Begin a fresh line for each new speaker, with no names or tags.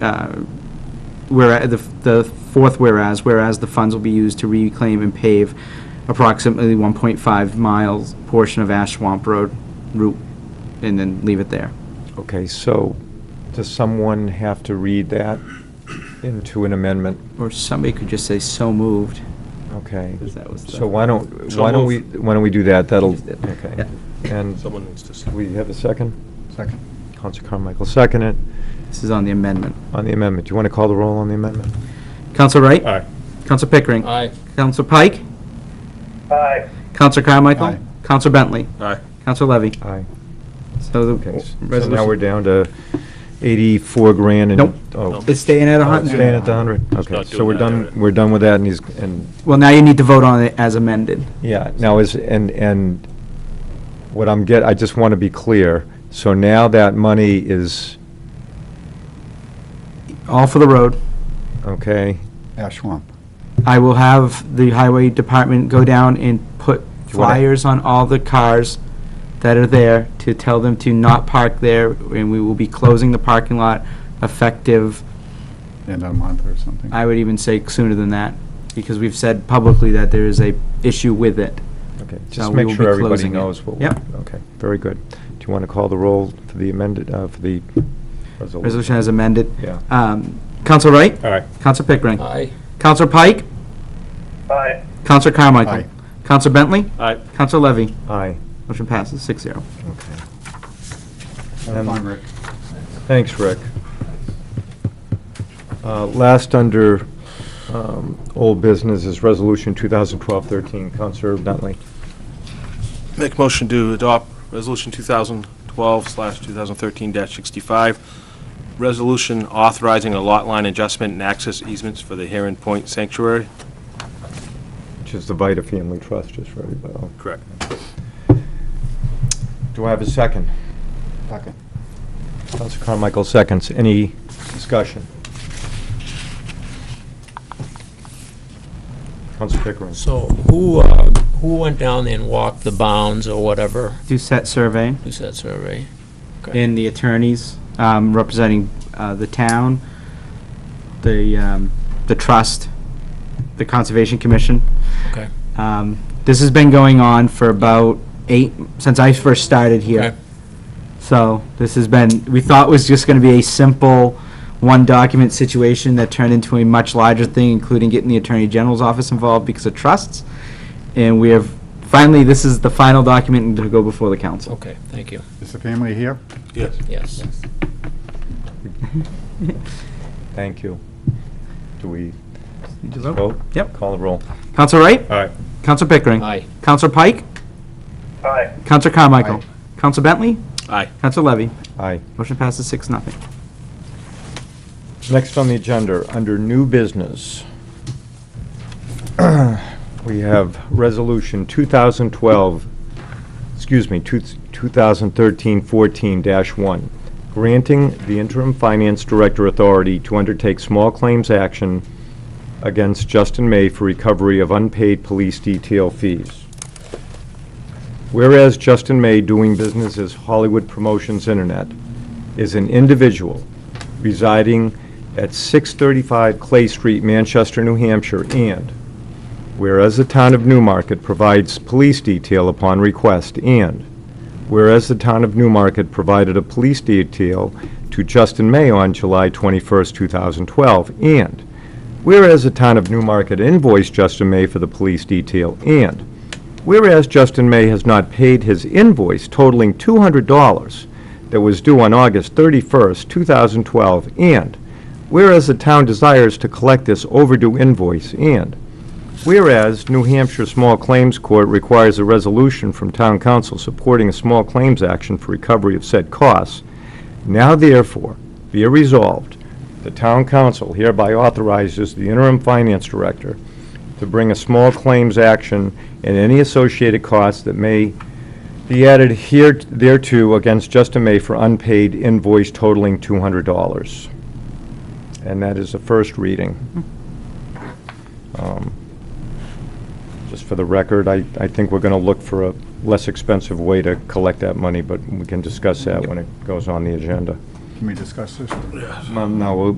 uh, where, the, the fourth whereas, whereas the funds will be used to reclaim and pave approximately 1.5 miles portion of Ash Swamp Road route, and then leave it there.
Okay, so does someone have to read that into an amendment?
Or somebody could just say, so moved,
Okay.
because that was the...
So why don't,
So
why don't we,
moved.
why don't we do that? That'll,
Just did.
okay.
Yeah.
And
Someone needs to.
we have a second?
Second.
Counsel Carmichael, second it
This is on the amendment.
on the amendment. Do you want to call the roll on the amendment?
Counsel Wright?
Aye.
Counsel Pickering?
Aye.
Counsel Pike?
Aye.
Counsel Carmichael?
Aye.
Counsel Bentley?
Aye.
Counsel Levy?
Aye.
So the
Okay, s- so now we're
resolution,
down to 84 grand and...
Nope.
Oh,
Nope.
it's staying at a
oh, it's
hundred.
staying at the 100?
not
Okay, so
doing
we're
that
done,
area.
we're done with that and he's, and,
Well, now you need to vote on it as amended.
yeah, now is, and, and what I'm get, I just want to be clear. So now that money is,
All for the road.
okay,
Ash Swamp.
I will have the highway department go down and put
you wanna-
flyers on all the cars that are there to tell them to not park there, and we will be closing the parking lot effective,
End of the month uh, or something.
I would even say sooner than that, because we've said publicly that there is a issue with it.
okay.
So
Just
we
make
will
sure
be
everybody
closing it.
knows what. we-
Yep.
Okay, very good. Do you want to call the roll for the amended, uh, for the
Resolution
resolution?
as amended.
Yeah.
Um, Counsel Wright?
Aye.
Counsel Pickering?
Aye.
Counsel Pike?
Aye.
Counsel Carmichael?
Aye.
Counsel Bentley?
Aye.
Counsel Levy?
Aye,
Motion passes six zero.
okay.
Have
um,
fun, Rick.
Thanks, Rick. Uh, Last under um, old business is Resolution 2012-13. Counselor Bentley,
Make motion to adopt Resolution 2012/2013-65, resolution authorizing a lot line adjustment and access easements for the Heron Point Sanctuary.
which is the Vita Family Trust, just for everybody.
Correct.
Do I have a second?
Second.
Counselor Carmichael seconds. Any discussion? Counselor Pickering.
So who, uh, who went down there and walked the bounds or whatever?
Do set survey.
Who's that survey?
and the attorneys um, representing uh, the town, the, um, the trust, the Conservation Commission.
Okay.
Um, This has been going on for about eight, since I first started
Okay.
here. So this has been, we thought was just going to be a simple one-document situation that turned into a much larger thing, including getting the Attorney General's office involved because of trusts. And we have, finally, this is the final document to go before the council.
Okay, thank you.
Is the family here?
Yes.
Yes.
Thank you. Do we
Oh.
You just
vote?
Yep.
Call the roll.
Counsel Wright?
Aye.
Counsel Pickering?
Aye.
Counsel Pike?
Aye.
Counsel Carmichael?
Aye.
Counsel Bentley?
Aye.
Counsel Levy?
Aye.
Motion passes six, nothing.
Next on the agenda, under new business, we have Resolution 2012, excuse me, 2013-14-1, granting the interim finance director authority to undertake small claims action against Justin May for recovery of unpaid police detail fees. Whereas Justin May, doing business as Hollywood Promotions Internet, is an individual residing at 635 Clay Street, Manchester, New Hampshire, and whereas the town of Newmarket provides police detail upon request, and whereas the town of Newmarket provided a police detail to Justin May on July 21st, 2012, and whereas the town of Newmarket invoiced Justin May for the police detail, and whereas Justin May has not paid his invoice totaling $200 that was due on August 31st, 2012, and whereas the town desires to collect this overdue invoice, and whereas New Hampshire Small Claims Court requires a resolution from town council supporting a small claims action for recovery of said costs, now therefore be it resolved, the town council hereby authorizes the interim finance director to bring a small claims action and any associated costs that may be added here, thereto against Justin May for unpaid invoice totaling $200. And that is the first reading. Um, Just for the record, I, I think we're going to look for a less expensive way to collect that money, but we can discuss that when it goes on the agenda.
Can we discuss this?
No,